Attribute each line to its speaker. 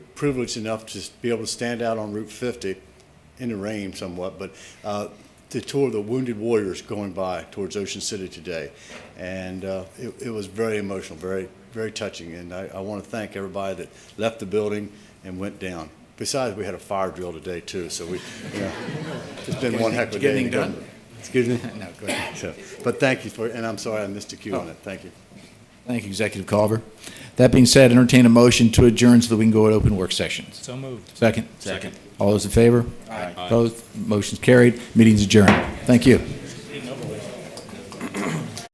Speaker 1: privileged enough to be able to stand out on Route 50 in the rain somewhat, but uh, to tour the Wounded Warriors going by towards Ocean City today. And uh, it it was very emotional, very, very touching. And I want to thank everybody that left the building and went down. Besides, we had a fire drill today too, so we, yeah, it's been one heck of a
Speaker 2: Did you get
Speaker 1: day. in
Speaker 2: anything done?
Speaker 1: government. Excuse me?
Speaker 2: No, go ahead.
Speaker 1: So, But thank you for, and I'm sorry I missed a cue on it. Thank you.
Speaker 2: Thank you, Executive Culver. That being said, entertain a motion to adjourn so that we can go to open work sessions.
Speaker 3: So moved.
Speaker 2: Second?
Speaker 3: Second.
Speaker 2: All those in favor? Aye. Opposed? Motion's carried. Meeting's adjourned. Thank you.